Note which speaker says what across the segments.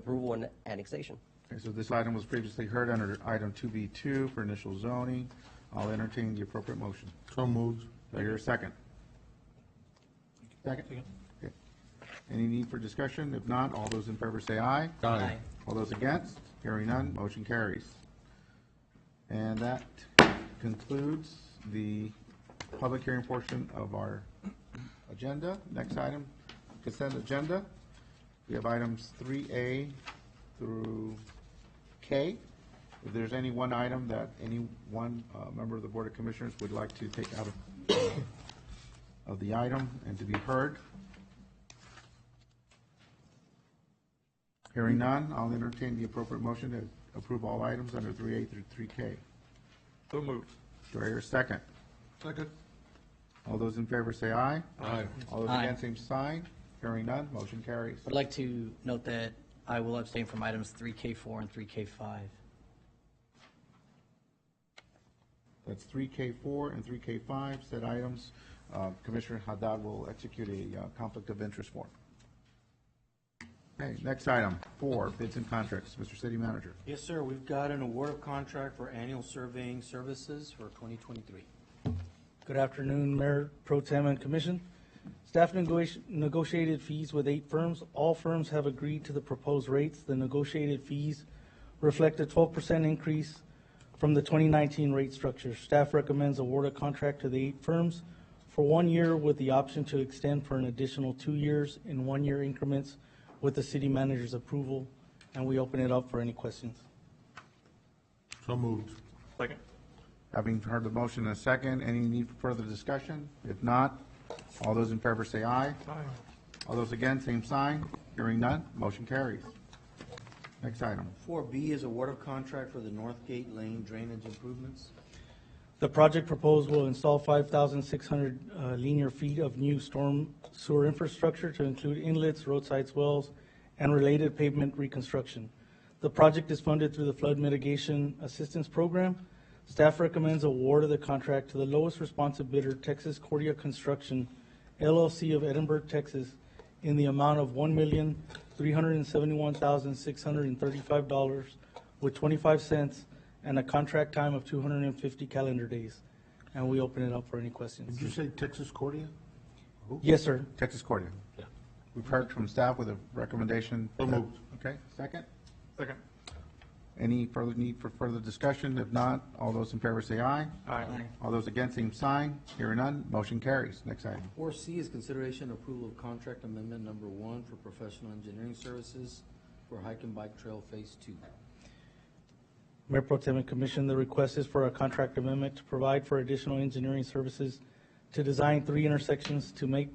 Speaker 1: approval and annexation.
Speaker 2: Okay, so this item was previously heard under item 2B2 for initial zoning. I'll entertain the appropriate motion.
Speaker 3: So moved.
Speaker 2: Do I hear a second? Second? Okay. Any need for discussion? If not, all those in favor say aye.
Speaker 3: Aye.
Speaker 2: All those against? Hearing none, motion carries. And that concludes the public hearing portion of our agenda. Next item, consent agenda. We have items 3A through K. If there's any one item that any one uh, member of the Board of Commissioners would like to take out of, of the item and to be heard, hearing none, I'll entertain the appropriate motion to approve all items under 3A through 3K.
Speaker 3: So moved.
Speaker 2: Do I hear a second?
Speaker 3: Second.
Speaker 2: All those in favor say aye.
Speaker 3: Aye.
Speaker 2: All those
Speaker 4: Aye.
Speaker 2: against, same sign. Hearing none, motion carries.
Speaker 4: I'd like to note that I will abstain from items 3K4 and 3K5.
Speaker 2: That's three K four and three K five, said items. Uh, Commissioner Haddad will execute a uh, conflict of interest form. Okay, next item, four, bids and contracts. Mr. City Manager.
Speaker 5: Yes, sir. We've got an award of contract for annual surveying services for 2023.
Speaker 6: Good afternoon, Mayor Pro Tem and Commission. Staff negoti- negotiated fees with eight firms. All firms have agreed to the proposed rates. The negotiated fees reflect a 12% increase from the 2019 rate structure. Staff recommends award a contract to the eight firms for one year with the option to extend for an additional two years in one-year increments with the city manager's approval, and we open it up for any questions.
Speaker 3: So moved. Second.
Speaker 2: Having heard the motion in a second, any need for further discussion? If not, all those in favor say aye.
Speaker 3: Aye.
Speaker 2: All those against, same sign. Hearing none, motion carries. Next item.
Speaker 5: 4B is award of contract for the Northgate Lane drainage improvements.
Speaker 6: The project proposed will install 5,600 uh, linear feet of new storm sewer infrastructure to include inlets, roadsides, wells, and related pavement reconstruction. The project is funded through the Flood Mitigation Assistance Program. Staff recommends award of the contract to the lowest responsive bidder, Texas Cordia Construction LLC of Edinburgh, Texas, in the amount of $1,371,635 with 25 cents and a contract time of 250 calendar days. And we open it up for any
Speaker 3: Did you
Speaker 6: questions.
Speaker 3: say Texas Cordia?
Speaker 6: Yes, sir.
Speaker 2: Texas Cordia. Yeah. We've heard from staff with a recommendation.
Speaker 3: So moved.
Speaker 2: Okay, second?
Speaker 3: Second.
Speaker 2: Any further need for further discussion? If not, all those in favor say aye.
Speaker 3: Aye.
Speaker 2: All those against, same sign. Hearing none, motion carries. Next item.
Speaker 5: 4C is consideration and approval of contract amendment number one for professional engineering services for hike and bike trail phase two.
Speaker 6: Mayor Pro Tem and Commission, the request is for a contract amendment to provide for additional engineering services to design three intersections to make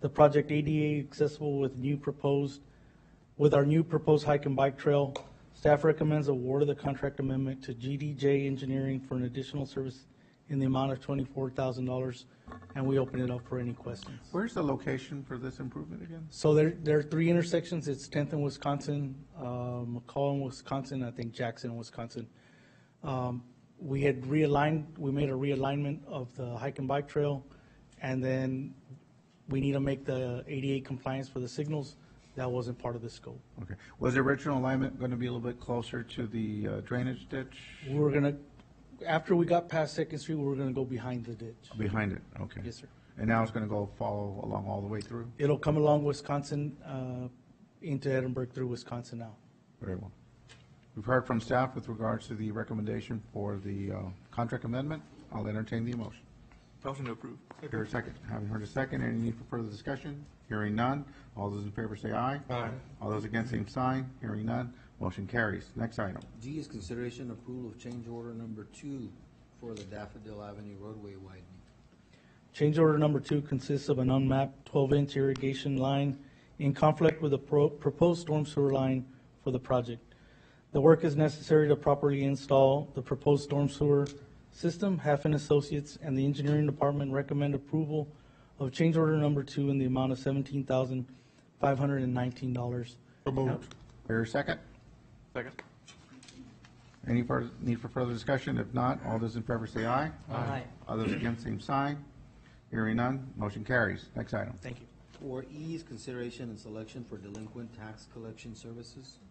Speaker 6: the project ADA accessible with new proposed, with our new proposed hike and bike trail. Staff recommends award of the contract amendment to GDJ Engineering for an additional service in the amount of twenty-four thousand dollars, and we open it up for any questions.
Speaker 2: Where's the location for this improvement again?
Speaker 6: So there, there are three intersections. It's Tenth and Wisconsin, uh, McCall and Wisconsin, I think Jackson, Wisconsin. Um, We had realigned, we made a realignment of the hike and bike trail, and then we need to make the ADA compliance for the signals. That wasn't part of the scope.
Speaker 2: Okay. Was the original alignment going to be a little bit closer to the uh, drainage ditch?
Speaker 6: We were gonna, after we got past Second Street, we were gonna go behind the ditch.
Speaker 2: Behind it, okay.
Speaker 6: Yes, sir.
Speaker 2: And now it's going to go follow along all the way through?
Speaker 6: It'll come along Wisconsin, uh, into Edinburgh through Wisconsin now.
Speaker 2: Very well. We've heard from staff with regards to the recommendation for the uh, contract amendment. I'll entertain the motion.
Speaker 3: Motion to approve.
Speaker 2: Hear a second. Having heard a second, any need for further discussion? Hearing none. All those in favor say aye.
Speaker 3: Aye.
Speaker 2: All those against, same sign. Hearing none. Motion carries. Next item.
Speaker 5: D is consideration and approval of change order number two for the Daffodil Avenue roadway widening.
Speaker 6: Change order number two consists of an unmapped 12-inch irrigation line in conflict with the pro- proposed storm sewer line for the project. The work is necessary to properly install the proposed storm sewer system. Hafen Associates and the engineering department recommend approval of change order number two in the amount of $17,519.
Speaker 3: So moved.
Speaker 2: Hear a second.
Speaker 3: Second.
Speaker 2: Any further, need for further discussion? If not, all those in favor say aye. Aye. All those against, same sign. Hearing none. Motion carries. Next item.
Speaker 6: Thank you.
Speaker 5: Four E is consideration and selection for delinquent tax collection services.